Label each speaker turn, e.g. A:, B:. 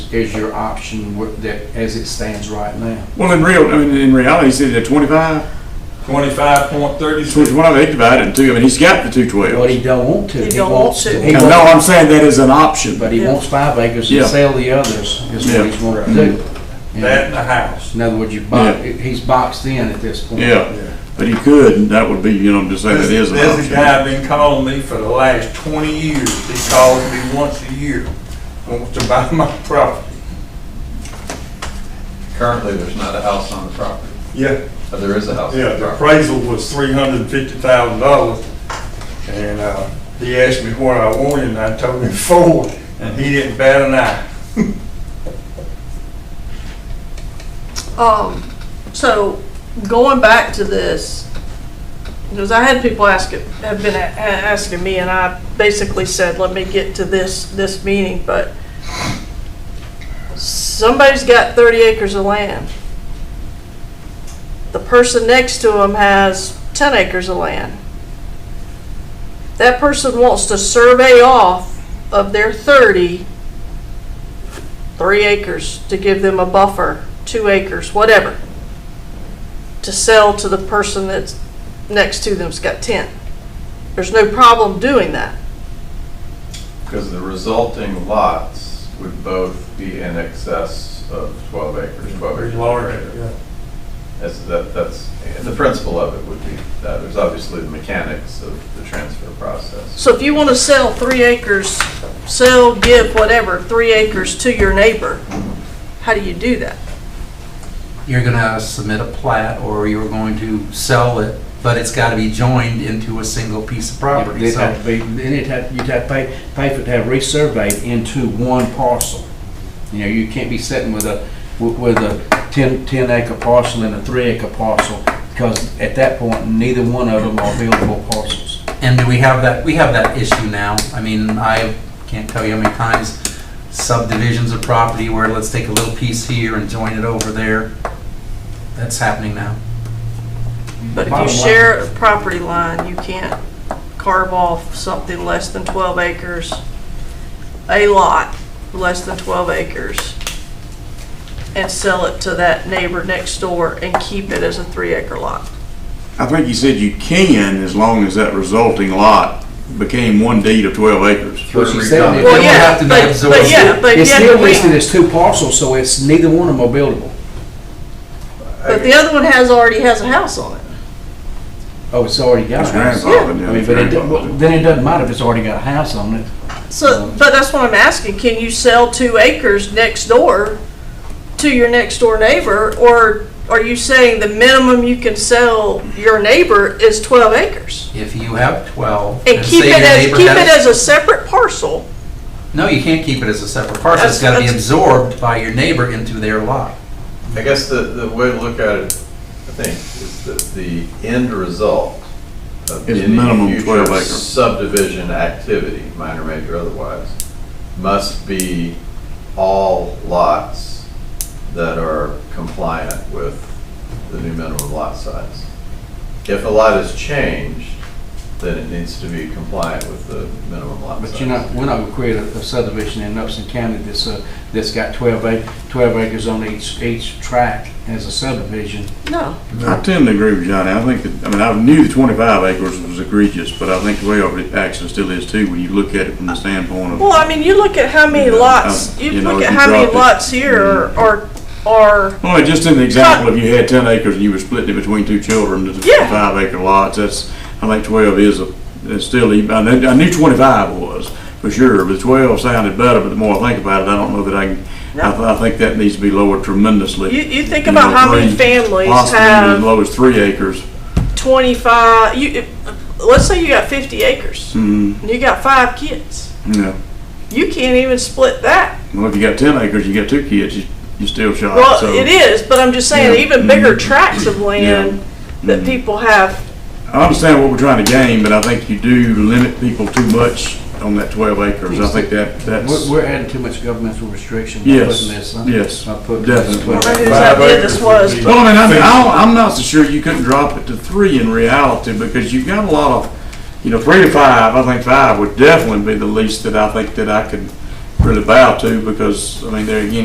A: is your option with that, as it stands right now.
B: Well, in real, I mean, in reality, he's either twenty-five,
C: Twenty-five point
B: so which
C: thirty-six.
B: one of they divide in two, I mean, he's got the two
A: But
B: twelve.
A: he don't want to.
D: He don't want
A: wants
D: to.
A: He
B: No,
A: wants-
B: I'm saying that is an option,
A: But
B: but
A: he
D: Yeah.
A: wants five acres and
B: Yeah.
A: sell the others, is
B: Yeah.
A: what he's wanting to do. And
C: That and the house.
A: In other words, you
B: Yeah.
A: box, he's boxed in at this point.
B: yeah, but he could, and that would be, you know, I'm just saying that
C: There's
B: is an
C: there's a
B: option.
C: guy been calling me for the last twenty years. He calls me once a year, wants to buy my property.
E: Currently, there's not a house on the property,
C: Yeah,
E: but there is a house on
C: yeah,
E: the
C: the
E: property.
C: appraisal was three hundred and fifty thousand dollars. And, uh, he asked me what I wanted and I told him four and he didn't bat an eye.
D: Um, so going back to this, because I had people ask, have been a- a- asking me, and I basically said, let me get to this, this meeting, but somebody's got thirty acres of land. The person next to them has ten acres of land. That person wants to survey off of their thirty, three acres to give them a buffer, two acres, whatever, to sell to the person that's next to them's got 10. There's no problem doing that.
E: Because the resulting lots would both be in excess of 12 acres, 12 acres. or greater. That's, that- that's, and the principle of it would be that. There's obviously the mechanics of the transfer process.
D: So if you want to sell three acres, sell, give, whatever, three acres to your neighbor, how do you do that?
F: you're gonna submit a plat or you're going to sell it, but it's gotta be joined into a single piece of property,
A: It'd have
F: so.
A: to be, then it'd have, you'd have to pay, pay for it to have resurveyed into one parcel. You know, you can't be sitting with a, with with a ten, ten acre parcel and a three acre parcel, because at that point, neither one of them are buildable parcels.
F: And do we have that, we have that issue now, I mean, I can't tell you how many times subdivisions of property where let's take a little piece here and join it over there. That's happening now.
D: But if you
A: Bottom line-
D: share a property line, you can't carve off something less than 12 acres, a lot less than 12 acres, and sell it to that neighbor next door and keep it as a three acre lot.
B: I think he said you can, as long as that resulting lot became one deed of twelve acres.
E: Through
A: But she's saying
E: redevelopment.
A: Well,
F: It would have to be
D: but- but
F: absorbed.
D: yeah, but
A: It's
D: yeah,
A: still
D: we-
A: listed as two parcels, so it's, neither one of them are buildable.
D: But the other one has, already has a house on it.
A: Oh, it's already got a
B: His
A: house.
B: grandfather,
A: I
B: yeah,
A: mean,
B: his
A: but it,
B: grandfather.
A: well, then it doesn't matter if it's already got a house on it.
D: So, but that's what I'm asking, can you sell two acres next door to your next door neighbor? Or are you saying the minimum you can sell your neighbor is twelve acres?
F: If you have twelve.
D: And keep
F: say
D: it
F: your
D: as,
F: neighbor
D: keep
F: has-
D: it as a separate parcel?
F: No, you can't keep it as a separate parcel, it's
D: That's-
F: gotta be
D: that's-
F: absorbed by your neighbor into their lot.
E: I guess the, the way to look at it, I think, is that the end result of
B: Is
E: any
B: minimum 12
E: future
B: acre.
E: subdivision activity, minor, major, otherwise, must be all lots that are compliant with the new minimum lot size. If a lot is changed, then it needs to be compliant with the minimum lot size.
A: But you're not, we're not gonna create a a subdivision in Upson County that's, uh, that's got twelve ac, twelve acres on each, each tract as a subdivision.
D: No.
B: I tend to agree with Johnny. I think that, I mean, I knew the twenty-five acres was egregious, but I think the way it actually still is too, when you look at it from the standpoint of.
D: Well, I mean, you look at how many
B: Yeah,
D: lots,
B: um,
D: you
B: you know,
D: look
B: if
D: at
B: you
D: how many
B: dropped it-
D: lots here are, are- are,
B: Well, just in the example, if you had ten acres and you were splitting it between two children, it's
D: Yeah.
B: five acre lots, that's, I think twelve is a, is still, e- I knew, I knew twenty-five was, for sure, but twelve sounded better, but the more I think about it, I don't know that I can, I, th- I think that needs to be lowered tremendously.
D: you, you think
B: You know,
D: about how many
B: three-
D: families
B: Possibly
D: have.
B: as low as three acres.
D: 25 you if- let's say you got 50 acres
B: Mm,
D: and you got five kids
B: yeah.
D: you can't even split that
B: Well, if you got ten acres, you got two kids, you, you still shot.
D: well
B: so.
D: it is but i'm just saying
B: Yeah.
D: even bigger
B: Mhm.
D: tracts
C: Mm-hmm.
D: of land that
B: Mhm.
D: people have
B: I understand what we're trying to gain, but I think you do limit people too much on that twelve acres. I think that, that's,
A: We're, we're adding too much governmental restriction by
B: Yes,
A: putting this, huh?
B: yes,
A: By putting this
B: definitely.
A: 12
D: I don't know whose
C: Five
D: idea
C: acres
D: this
C: would
D: was
C: be-
B: well, I mean, I mean, I'll- I'm not so sure you couldn't drop it to three in reality because you've got a lot of, you know, three to five, I think five would definitely be the least that I think that I could really bow to because, I mean, there again,